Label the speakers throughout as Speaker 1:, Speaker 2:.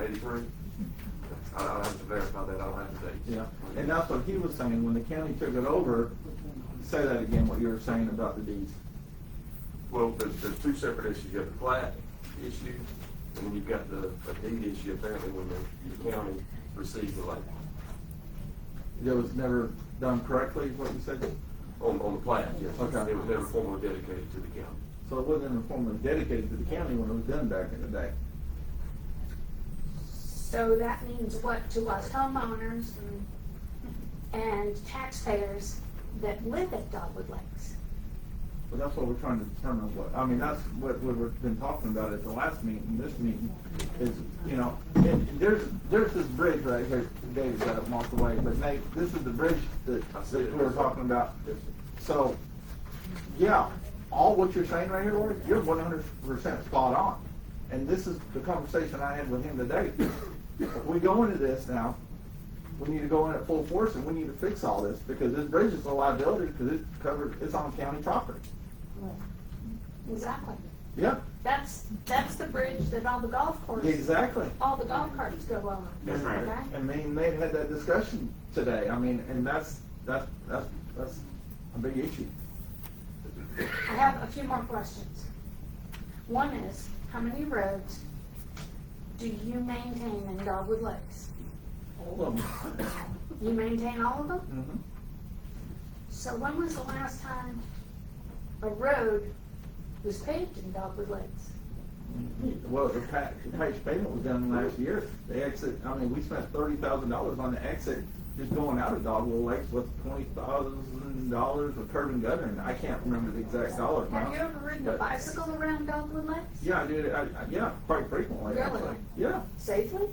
Speaker 1: is right? I- I'll have to verify that, I'll have to date.
Speaker 2: Yeah, and that's what he was saying, when the county took it over, say that again, what you were saying about the deeds.
Speaker 1: Well, there's, there's two separate issues, you have the plat issue, and then you've got the, the deed issue apparently when the, the county receives the land,
Speaker 2: It was never done correctly, is what you said?
Speaker 1: on, on the plat, yes.
Speaker 2: Okay.
Speaker 1: It was never formally dedicated to the county.
Speaker 2: So it wasn't in a form of dedicated to the county when it was done back in the day.
Speaker 3: So that means what to us homeowners and- and taxpayers that live at Dogwood Lakes?
Speaker 2: But that's what we're trying to determine what, I mean, that's what we- we've been talking about at the last meeting, this meeting, is, you know, and there's, there's this bridge right here, Dave's got it marked away, but Nate, this is the bridge that,
Speaker 1: I see
Speaker 2: that
Speaker 1: it.
Speaker 2: we were talking about.
Speaker 1: Yes, sir.
Speaker 2: So, yeah, all what you're saying right here, Lori, you're one hundred percent spot on. And this is the conversation I had with him today. If we go into this now, we need to go in at full force and we need to fix all this because this bridge is a liability because it's covered, it's on county property.
Speaker 3: Exactly.
Speaker 2: Yeah,
Speaker 3: That's, that's the bridge that all the golf courses,
Speaker 2: exactly.
Speaker 3: all the golf carts go on.
Speaker 1: That's right.
Speaker 3: okay?
Speaker 2: I mean, they had that discussion today. I mean, and that's, that's, that's, that's a big issue.
Speaker 3: I have a few more questions. One is, how many roads do you maintain in Dogwood Lakes?
Speaker 2: All of them.
Speaker 3: You maintain all of them?
Speaker 2: Mhm.
Speaker 3: So when was the last time a road was paved in Dogwood Lakes?
Speaker 2: Well, the patch, the patch pavement was done last year. The exit, I mean, we spent thirty thousand dollars on the exit, just going out of Dogwell Lakes with twenty thousand dollars of curb and gutter, and I can't remember the exact dollar
Speaker 3: Have
Speaker 2: amount.
Speaker 3: you ever ridden a
Speaker 2: but-
Speaker 3: bicycle around Dogwood Lakes?
Speaker 2: Yeah, I did, I, I, yeah, quite frequently,
Speaker 3: Really?
Speaker 2: actually. Yeah,
Speaker 3: Safely?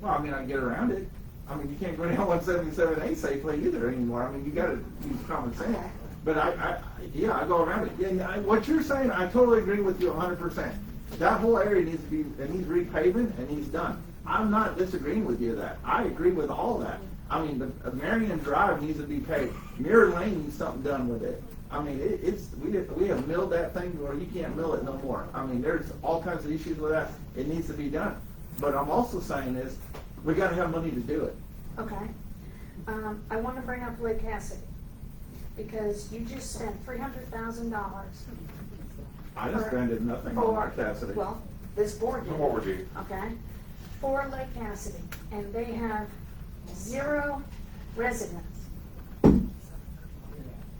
Speaker 2: well, I mean, I get around it. I mean, you can't go down one seventy-seven A safely either anymore. I mean, you gotta use common sense. But I, I, yeah, I go around it. Yeah, Yeah, I- what you're saying, I totally agree with you hundred percent. That whole area needs to be, and he's repaving and he's done. I'm not disagreeing with you that. I agree with all that. I mean, the uh, Marion Drive needs to be paved. Mirror Lane needs something done with it. I mean, it, it's, we did, we have milled that thing where you can't mill it no more. I mean, there's all kinds of issues with that. It needs to be done. But I'm also saying is, we gotta have money to do it.
Speaker 3: Okay. Um, I want to bring up Lake Cassidy because you just spent three hundred thousand dollars
Speaker 2: I done spent it nothing on
Speaker 3: for,
Speaker 2: our Cassidy.
Speaker 3: well, this board did.
Speaker 1: What would you?
Speaker 3: Okay? For Lake Cassidy, and they have zero residents.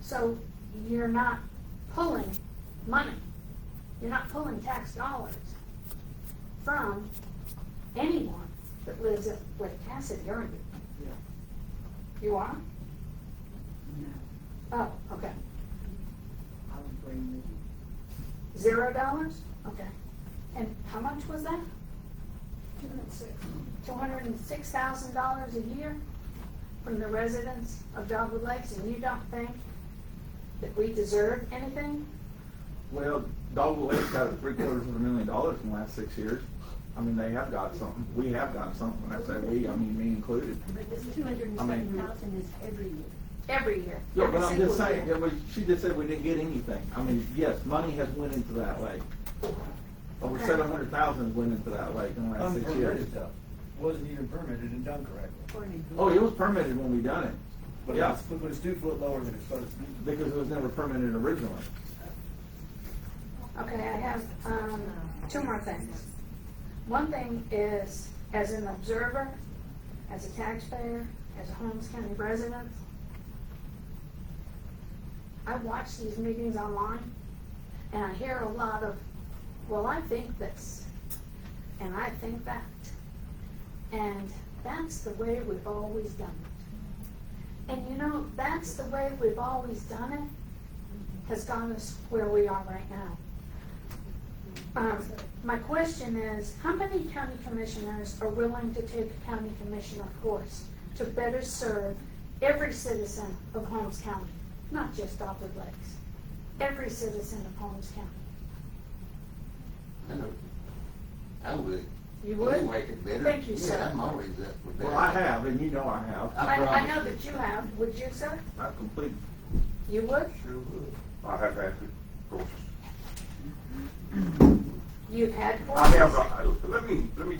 Speaker 3: So you're not pulling money, you're not pulling tax dollars from anyone that lives at Lake Cassidy, are you? You are? Oh, okay.
Speaker 4: I would bring
Speaker 3: Zero dollars? Okay. And how much was that? Two hundred and six. Two hundred and six thousand dollars a year from the residents of Dogwood Lakes, and you don't think that we deserve anything?
Speaker 2: Well, Dogwood Lake's got three quarters of a million dollars in the last six years. I mean, they have got something. We have got something. When I say we, I mean me included.
Speaker 5: But this two hundred and seven thousand is every year.
Speaker 3: Every year.
Speaker 2: Yeah, but I'm
Speaker 3: every
Speaker 2: just
Speaker 3: single
Speaker 2: saying,
Speaker 3: year.
Speaker 2: yeah, but she just said we didn't get anything. I mean, yes, money has went into that lake. Over
Speaker 3: Okay.
Speaker 2: seven hundred thousand went into that lake in the last
Speaker 6: Um,
Speaker 2: six years.
Speaker 6: Unpermitted stuff, wasn't even permitted and done correctly.
Speaker 2: Oh, it was permitted when we done it.
Speaker 6: But
Speaker 2: Yeah.
Speaker 6: it's, but it's two foot lower than it's supposed to be.
Speaker 2: Because it was never permitted originally.
Speaker 3: Okay, I have, um, two more things. One thing is, as an observer, as a taxpayer, as a Holmes County resident, I watch these meetings online, and I hear a lot of, well, I think this, and I think that. And that's the way we've always done it. And you know, that's the way we've always done it, has gotten us where we are right now. Um, my question is, how many county commissioners are willing to take a county commissioner course to better serve every citizen of Holmes County? Not just Dogwood Lakes, every citizen of Holmes County.
Speaker 7: I know. I would.
Speaker 3: You would?
Speaker 7: Make it better.
Speaker 3: Thank you, sir.
Speaker 7: Yeah, I'm always up for better.
Speaker 2: Well, I have, and you know I have.
Speaker 3: I, I
Speaker 7: promise
Speaker 3: know
Speaker 7: you.
Speaker 3: that you have, would you, sir?
Speaker 2: I've completed.
Speaker 3: You would?
Speaker 1: I have had, it, of course.
Speaker 3: You've had
Speaker 1: I
Speaker 3: courses?
Speaker 1: have, uh, let me, let me